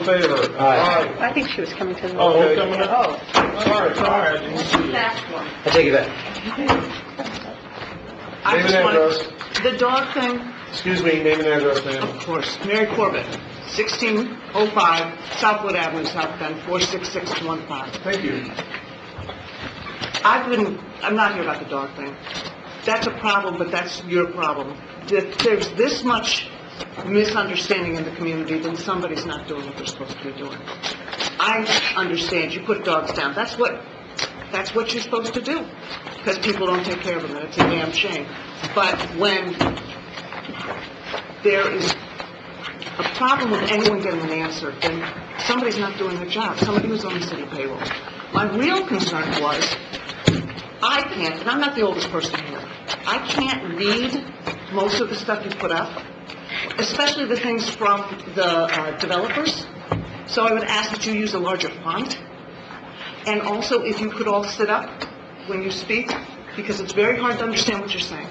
in favor? Aye. I think she was coming to the... Oh, we're coming up? Oh. Aye. Sorry, sorry, I didn't see you. I take it back. I Name just and wanted, the dog thing, Excuse me, name and address, of ma'am. course, Mary Corbett, 1605 Southwood Avenue, South Bend, 46615. Thank you. I've been, I'm not here about the dog thing. That's a problem, but that's your problem. If there's this much misunderstanding in the community, then somebody's not doing what they're supposed to be doing. I understand, you put dogs down, that's what, that's what you're supposed to do, because people don't take care of them, and it's a damn shame. But when there is a problem with anyone getting an answer, then somebody's not doing their job, somebody who's on the city payroll. My real concern was, I can't, and I'm not the oldest person here, I can't read most of the stuff you put up, especially the things from the uh, developers, so I would ask that you use a larger font, and also if you could all sit up when you speak, because it's very hard to understand what you're saying.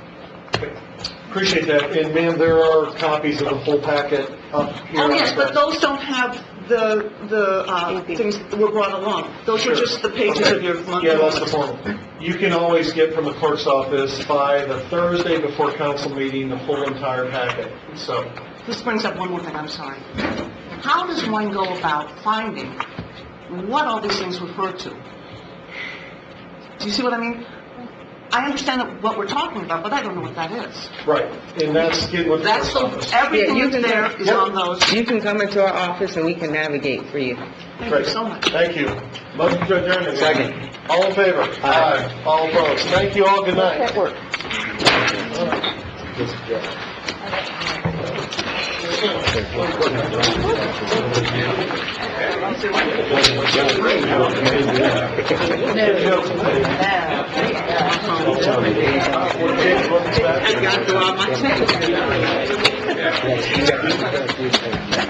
Appreciate that, and ma'am, there are copies of the full packet up here. Oh, yes, but those don't have the, the, uh, things that were brought along. Those Sure. are just the pages of your monthly... Yeah, that's the form. You can always get from the clerk's office by the Thursday before council meeting, the whole entire packet, so. This brings up one more thing, I'm sorry. How does one go about finding what all these things refer to? Do you see what I mean? I understand that what we're talking about, but I don't know what that is. Right, and that's getting with the That's, clerk's the- office. everything Yeah, you that's can- there is on those. You can come into our office and we can navigate for you. Thank you so much. Thank you. Motion to adjourn again. Second. All in favor? Aye. All opposed? Thank you all, good night. That works. I gotta go out my...